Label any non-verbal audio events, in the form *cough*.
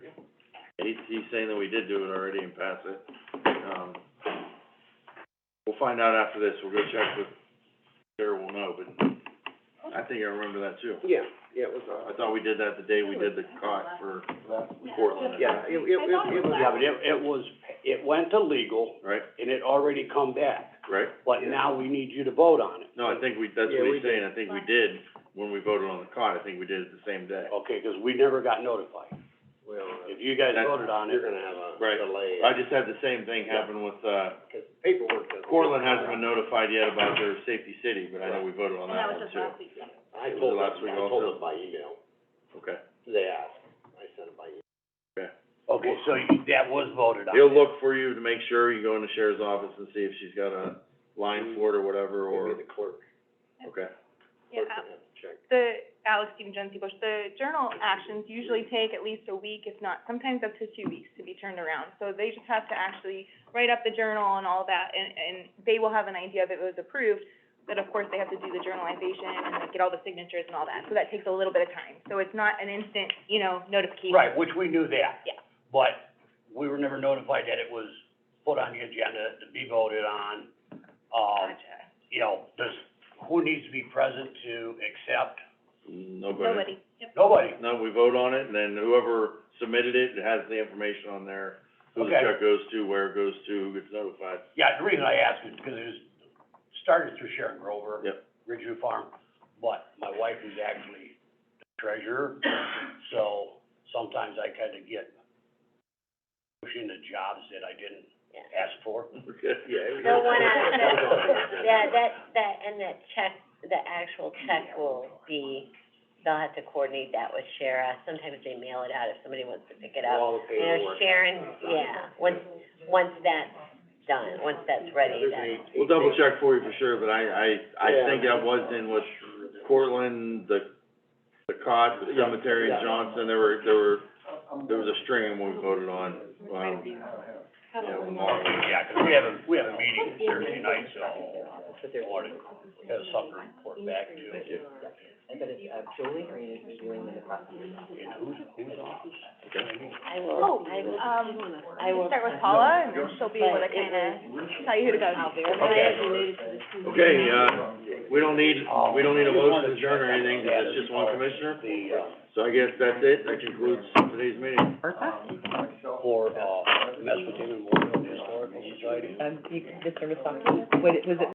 he's, he's saying that we did do it already and pass it. Um, we'll find out after this, we'll go check with, Sarah will know, but I think I remember that too. Yeah, yeah, it was, I uh, thought we did that the day we did the cot for Portland. yeah, it, it, it it was. Yeah, but it, it was, it went to legal Right, and it already come back, right? but now we need you to vote on it. No, I think we, that's Yeah, what we he's saying, I think we did, when we voted on the cot, I think we did it the same day. Okay, 'cause we never got notified. Well, If you guys That's- voted on it, you're gonna have a uh, Right. delay. I just had the same thing happen with, uh, Cause paperwork doesn't. Cortland hasn't been notified yet about their safety city, but I know we voted on And that that one was just too. last week, yeah. It I was told last week them, I also. told them by email, Okay. they asked, I sent it by email. okay, so you, that was voted on. He'll look for you to make sure, you go in the sheriff's office and see if she's got a line for it or whatever, or, Maybe the clerk, okay. clerk Yeah, Al- can have to check. the, Alex Stephen Jones, Bush, the journal actions usually take at least a week, if not, sometimes up to two weeks to be turned around. So they just have to actually write up the journal and all that, and, and they will have an idea if it was approved. But of course, they have to do the journalization and like, get all the signatures and all that, so that takes a little bit of time. So it's not an instant, you know, notification. Right, which we knew that. Yeah. But we were never notified that it was put on the agenda to be voted on. Um, Gotcha. you know, does, who needs to be present to accept? Nobody. Nobody, yep. Nobody. No, we vote on it, and then whoever submitted it, it has the information on there, who the Okay. check goes to, where it goes to, who gets notified. *laughs* Yeah, the reason I ask is because it was, started through Sharon Grover. Yep. Ridgeview Farm, but my wife is actually the treasurer, so sometimes I kinda get pushed into jobs that I didn't ask for. Okay. Yeah. it The was- *laughs* one out it was on the that, agenda. yeah, that, that, and that check, the actual check will be, they'll have to coordinate that with Shara. Sometimes they mail it out if somebody wants to pick it up. All the You know, paperwork. Sharon, yeah, once, once that's done, once that's ready, There's an then. 18 We'll double check for you for sure, but I, I, I Yeah. think that was in with Cortland, the, the Cod, the Cemetery, and Yeah. Johnson, there were, there were, there was a string of them we voted on, um, yeah, with them all. Yeah, 'cause we have a, we have a meeting Thursday night, so morning, we have something to report back Thank to. you. But it's, uh, Julie, or you're just doing the prosecutor's office? And who's, who's on? I will, Oh, I will, um, I you will. start with Paula, and then she'll be able to But it kinda tell you who to go. I'll verify Okay. Okay, it. uh, we don't need, Uh, we don't need a motion to adjourn or anything, 'cause it's just one commissioner, The, uh, so I guess that's it, that concludes today's meeting. for, uh, Mesopotamian Memorial Historical Society. Um, you, the service office, what, was it